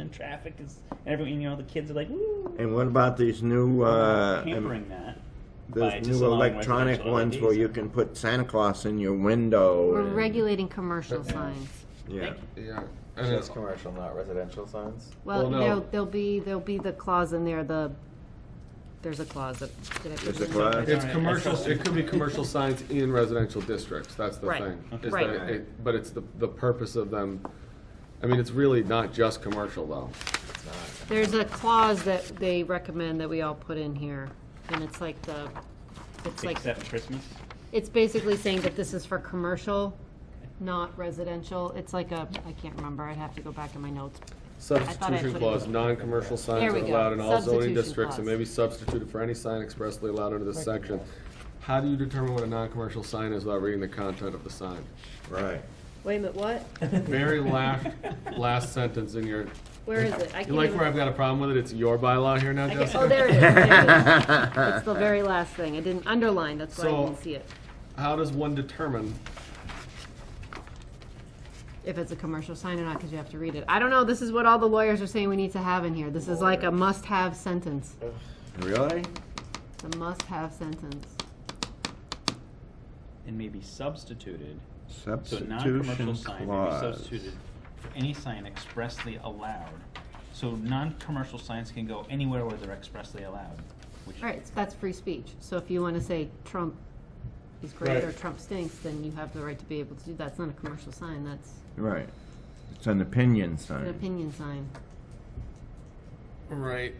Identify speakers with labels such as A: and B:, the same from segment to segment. A: and traffic is and everyone. You know, the kids are like, woo.
B: And what about these new, uh,
A: hampering that. by
B: those
A: just
B: new
A: allowing
B: electronic
A: residential
B: ones
A: LEDs
B: where you
A: in.
B: can put Santa Claus in your window?
C: We're
B: and-
C: regulating commercial
D: Yeah.
C: signs.
B: Yeah,
D: Yeah. And
E: It's
D: it's,
E: commercial, not residential signs.
C: Well,
D: Well, no.
C: there'll, there'll be, there'll be the clause in there, the, there's a clause that, did I put
B: There's
C: it
B: a
C: in?
B: clause?
D: it's
A: Sorry, I
D: commercial,
A: felt-
D: it could be commercial signs in residential districts, that's the
C: Right.
D: thing.
A: Okay.
D: is
C: Right.
D: that it- But it's the, the purpose of them, I mean, it's really not just commercial though.
C: There's a clause that they recommend that we all put in here, and it's like the, it's like,
A: Except Christmas.
C: it's basically saying that this is for commercial, not residential. It's like a, I can't remember, I'd have to go back in my notes.
D: Substitution
C: put it
D: clause,
C: in.
D: non-commercial signs
C: There
D: are
C: we go.
D: allowed in all zoning
C: Substitution
D: districts and
C: clause.
D: may be substituted for any sign expressly allowed under this section. How do you determine what a non-commercial sign is without reading the content of the sign?
B: right.
C: Wait a minute, what?
D: Very last, last sentence in your,
C: Where is it? I
D: you
C: can't
D: like where I've
C: even.
D: got a problem with it, it's your bylaw here now,
C: I can't-
D: Jessica?
C: Oh, there it is. There it is. It's the very last thing. I didn't underline, that's why I
D: So-
C: didn't see it.
D: How does one determine?
C: if it's a commercial sign or not, because you have to read it. I don't know, this is what all the lawyers are saying we need to have in here. This is like a must-have sentence.
B: Really?
C: It's a must-have sentence.
A: And may be substituted. So a
B: Substitution
A: non-commercial sign may be
B: clause.
A: substituted for any sign expressly allowed. So non-commercial signs can go anywhere where they're expressly allowed, which
C: All right, so that's free speech. So if you want to say Trump is great or
D: Right.
C: Trump stinks, then you have the right to be able to do that. It's not a commercial sign, that's
B: Right. It's an opinion
C: an
B: sign.
C: opinion sign.
D: Right.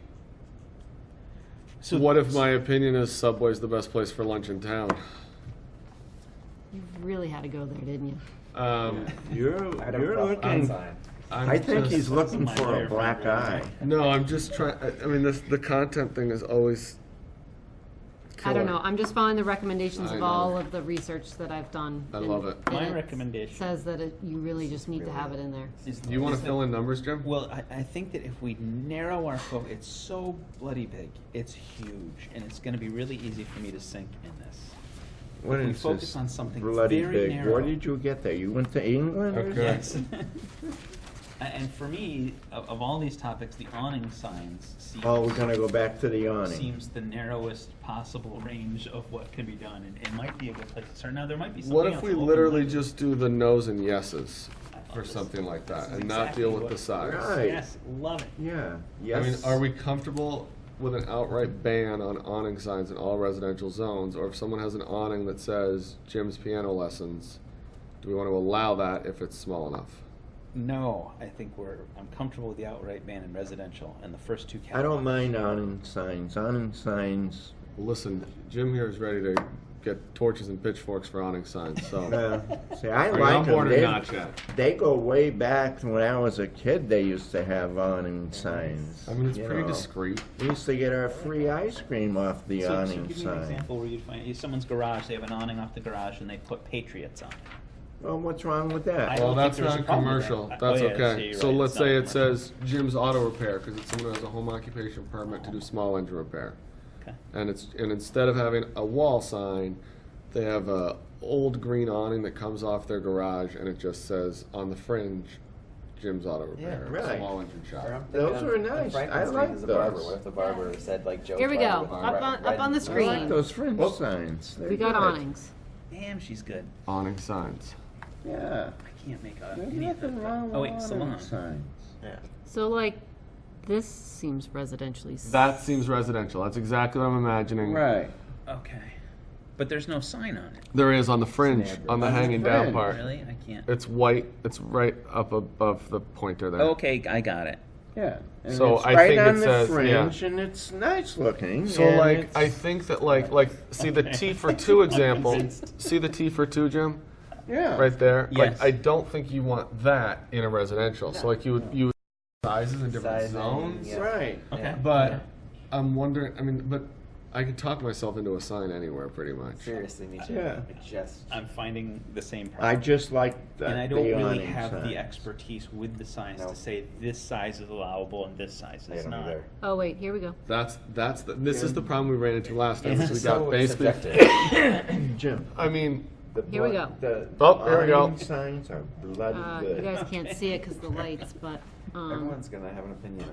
A: So-
D: What if my opinion is Subway's the best place for lunch in town?
C: You really had to go there, didn't you?
D: Um,
B: You're,
E: I don't
B: you're
E: know.
B: looking,
E: Sign.
D: I'm
B: I think
D: just-
B: he's looking
A: my
B: for
A: lawyer
B: a black eye.
A: friend.
D: No, I'm just trying. I mean, this the content thing is always.
C: I
D: killer.
C: don't know, I'm just following the recommendations
D: I
C: of
D: know.
C: all of the research that I've done.
D: I
C: and-
D: love it.
C: and
A: My
C: it
A: recommendation-
C: Says that it- you really just need to have it in there.
A: is.
D: Do you want
F: Is
D: to
F: that-
D: fill in numbers, Jim?
F: Well, I, I think that if we narrow our focus, it's so bloody big, it's huge, and it's going to be really easy for me to sink in this.
B: What
F: We
B: is
F: focus
B: this
F: on something
B: bloody
F: very
B: big?
F: narrow.
B: Where did you get that? You went to England? or
D: Okay.
B: something?
A: Yes. A- and for me, of, of all these topics, the awning signs seems,
B: Oh, we're gonna go back to the awning.
A: seems the narrowest possible range of what can be done, and it might be a good place to start. Now there might be something
D: What if
A: else
D: we
A: open
D: literally
A: minded.
D: just do the no's and yeses or
A: this-
D: something like that,
A: this is
D: and not deal
A: exactly
D: with
A: what-
D: the size?
B: Right.
A: yes, love it.
B: Yeah,
D: I
B: yes.
D: mean, are we comfortable with an outright ban on awning signs in all residential zones, or if someone has an awning that says Jim's piano lessons, do we want to allow that if it's small enough?
F: No, I think we're, I'm comfortable with the outright ban in residential and the first two
B: I
F: categories.
B: don't mind awning signs. Awning signs,
D: Listen, Jim here is ready to get torches and pitchforks for awning signs. So,
B: uh, see, I
D: are you on
B: like them.
D: board or
B: They-
D: not, Chad?
B: They go way back to when I was a kid, they used to have awning signs.
D: I mean, it's
B: you
D: pretty
B: know.
D: discreet.
B: We used to get our free ice cream off the
A: So, so give
B: awning
A: me an
B: sign.
A: example where you'd find in someone's garage. They have an awning off the garage, and they put Patriots on. it.
B: Well, what's wrong with that?
A: I
D: Well,
A: don't
D: that's
A: think there's
D: not
A: a problem with
D: commercial.
A: that. Oh,
D: That's
A: yeah, so
D: okay.
A: you're
D: So
A: right,
D: let's
A: it's not
D: say it
A: commercial.
D: says Jim's Auto Repair, because it's someone who has a home occupation permit to do small engine repair.
A: Okay.
D: And it's, and instead of having a wall sign, they have a old green awning that comes off their garage and it just says on the fringe, Jim's Auto Repair,
B: Yeah, right.
D: small engine
E: Or
D: shop.
E: I'm thinking
B: Those
E: of
B: were
E: the
B: nice.
E: Franklin
B: I
E: Street
B: like
E: as a barber.
B: those.
E: What if the barber said like Joe?
C: Here we
E: Barber
C: go.
E: with
C: Up
E: red-
C: on- up
E: red-
C: on the
E: red-
B: I like
C: Green.
B: those fringe
D: Well-
B: signs. They're
C: We got
B: good.
C: awnings.
F: Damn, she's good.
D: Awning signs.
B: Yeah.
F: I can't make a.
B: There's
F: any of
B: nothing
F: the-
B: wrong with
F: Oh wait,
B: awning
F: salon.
B: signs.
C: So like, this seems residentially. s-
D: That seems residential. That's exactly what I'm imagining.
B: Right.
F: Okay, but there's no sign on it.
D: There is on the fringe, on the hanging down
B: fringe.
D: part.
F: Really, I can't.
D: It's white, it's right up above the pointer there.
F: Okay, I got it.
B: Yeah. And
D: So
B: it's
D: I
B: right
D: think it
B: on the
D: says- yeah.
B: fringe, and it's nice looking.
D: So
B: and
D: like
B: it's-
D: I think that like like see the T for two example. see the T for two, Jim,
B: yeah.
D: right there.
F: Yes.
D: Like I don't think you want that in a residential. So like you would you would sizes in different
E: Sizing,
D: zones.
E: yeah.
B: Right.
A: Okay.
D: But I'm wondering. I mean, but I could talk myself into a sign anywhere pretty much.
E: Seriously, me too.
B: Yeah.
E: It Just.
A: I'm finding the same problem.
B: I just like the
A: and I don't
B: the
A: really
B: awning
A: have
B: signs.
A: the expertise with the signs
E: No.
A: to say this size is allowable and this size
E: I
A: is
E: don't
A: not.
E: either.
C: Oh, wait, here we go.
D: That's that's the, this is the problem we ran into last time. is we got
E: So
D: basically.
E: subjective.
B: Jim.
D: I mean,
B: The
C: Here we
B: blo-
C: go.
B: The
D: Oh, here we go.
B: awning signs are bloody
C: Uh,
B: good.
C: you guys can't see it because the lights, but Um,
E: Everyone's gonna have an opinion